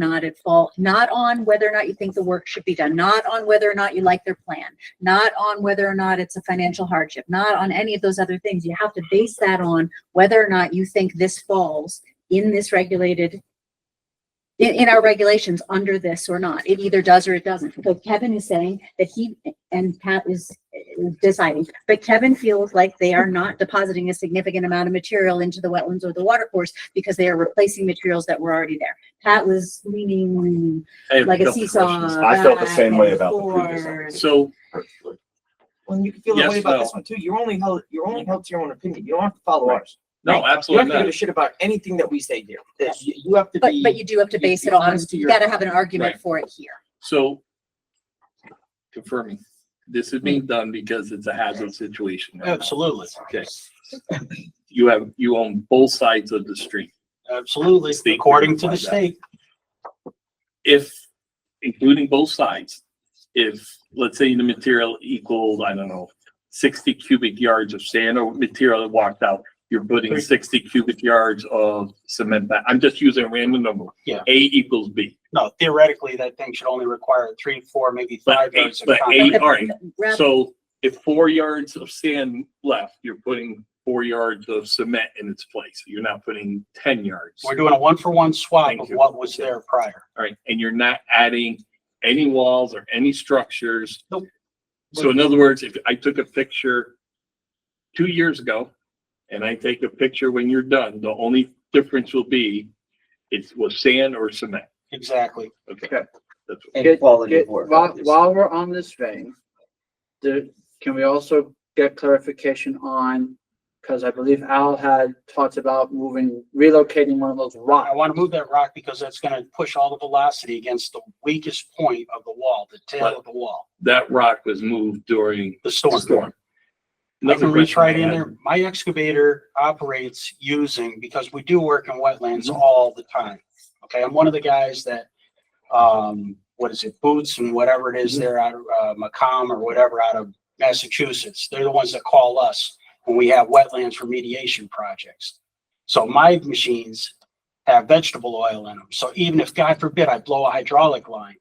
not at fault, not on whether or not you think the work should be done, not on whether or not you like their plan, not on whether or not it's a financial hardship, not on any of those other things. You have to base that on whether or not you think this falls in this regulated, in, in our regulations under this or not. It either does or it doesn't. So Kevin is saying that he, and Pat is uh, deciding, but Kevin feels like they are not depositing a significant amount of material into the wetlands or the water course because they are replacing materials that were already there. Pat was leaning Hey, like a no. seesaw. I felt the back same way and about the previous forth. episode. So, Well, you can feel that Yes, way about no. this one too. You're only held, you're only held to your own opinion. You don't have to follow ours. no, You don't absolutely have to give a not. shit about anything that we say here. That You you have to But, be. but you do have to you- base it you're on, honest to you your- gotta have an argument Right. for it here. So confirming, this is being done because it's a hazard situation. right now. Absolutely, Okay. You have, you own both sides of the street. absolutely, State according to the verified that. state. If, including both sides, if, let's say the material equaled, I don't know, sixty cubic yards of sand or material that walked out, you're putting sixty cubic yards of cement back. I'm just using a random number. Yeah. A equals B. No, theoretically, that thing should only require three, four, maybe But five eight, yards of but eight, contact. all right, Rather- So if four yards of sand left, you're putting four yards of cement in its place. You're not putting ten yards. We're doing a one-for-one swap Thank of you. what was there prior. All right, and you're not adding any walls or any structures. Nope. So in other words, if I took a picture two years ago and I take a picture when you're done, the only difference will be it was sand or cement. Exactly. Okay. Okay. That's what- Get- quality get- of work, While, obviously. while we're on this vein, the, can we also get clarification on, because I believe Al had talked about moving, relocating one of those I rocks. want to move that rock because that's going to push all the velocity against the weakest point of the wall, the tail of the wall, That rock was moved during the the storm. storm. I can Another reach question I right in had. there. My excavator operates using, because we do work in wetlands Mm-hmm. all the time. Okay, I'm one of the guys that, um, what is it, Boots and whatever it is, Mm-hmm. they're out of, uh, Macomb or whatever out of Massachusetts. They're the ones that call us when we have wetlands remediation projects. So my machines have vegetable oil in them. So even if, God forbid, I blow a hydraulic line,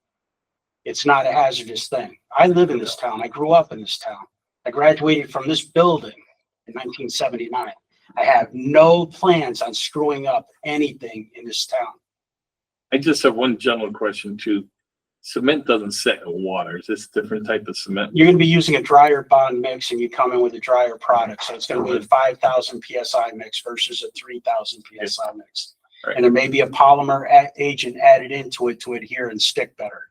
it's not a hazardous thing. I live in this town. I grew up in this town. I graduated from this building in nineteen seventy-nine. I have no plans on screwing up anything in this town. I just have one general question too. Cement doesn't set in water. Is this a different type of cement? You're gonna be using a drier bond mix and you come in with a drier product, so it's gonna be a five thousand PSI mix versus a three thousand PSI mix. Right. And there may be a polymer a- agent added into it to adhere and stick better.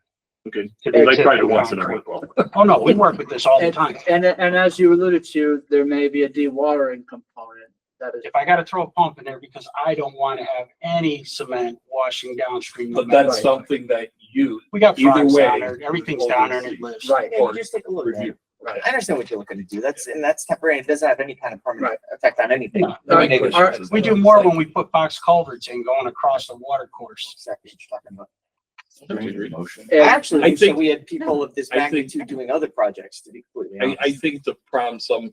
Okay, to the I tried it existing once and I concrete. went, well, Oh, no, we work with this all the And, time. and, and as you alluded to, there may be a dewatering component that is. If I gotta throw a pump in there because I don't wanna have any cement washing downstream. no but matter that's what. something that you We got Either frogs way, down there, everything's you down there and always it lives. Right, Yeah, you just take a look at it. review. right. I understand what you're looking to do. That's, and that's temporary. It doesn't have any kind of permanent effect on anything. No. All right, Negative. all right. We do more when we put box culverts in going across the water course. Exactly what you're talking about. Motion. I And Actually, I we said think- we had people of this I think- magnitude doing other projects to be completely I, honest. I think the problem some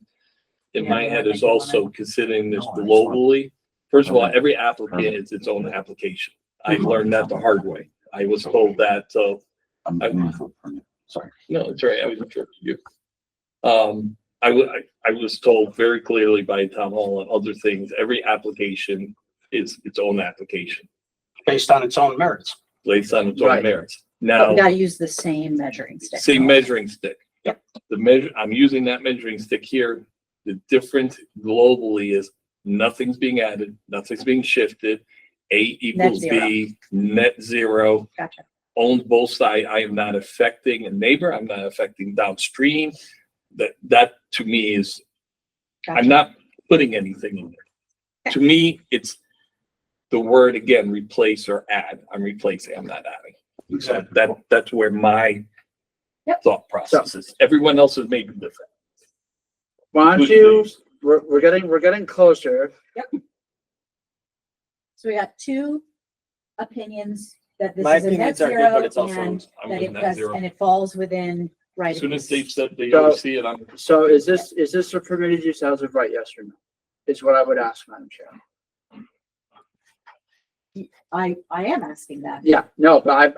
in Yeah, my I head think is you wanna- also considering this No, I just want- globally. First of all, every applicant Permit. is its own application. I learned that the hard way. I was told that, uh, so I'm going for permit. Sorry. No, it's all right. I was interrupting you. Um, I wa- I, I was told very clearly by town hall and other things, every application is its own application based on its own merits. based on its own Right. merits. But oh, we Now, gotta use the same measuring stick. say measuring stick. The measure, I'm using that measuring stick here. The difference globally is nothing's being added, nothing's being shifted. A equals zero. B, net zero. Gotcha. owns both sides. I am not affecting a neighbor. I'm not affecting downstream. That, that to me is, I'm Gotcha. not putting anything in there. To me, it's the word again, replace or add. I'm replacing, I'm not adding. So That, that's where my Yep. thought process is. Everyone else is maybe different. why don't you, we're, we're getting, we're getting closer. So we got two opinions that My this is a net opinions are good, zero but it's also- and I'm that with it net does, zero. and it falls within right. As of soon as use. they said they So- see it, I'm, So is this, is this a permitted use as of right, yes or no? Is what I would ask, Madam Chair. I, I am asking that. Yeah, no, but I,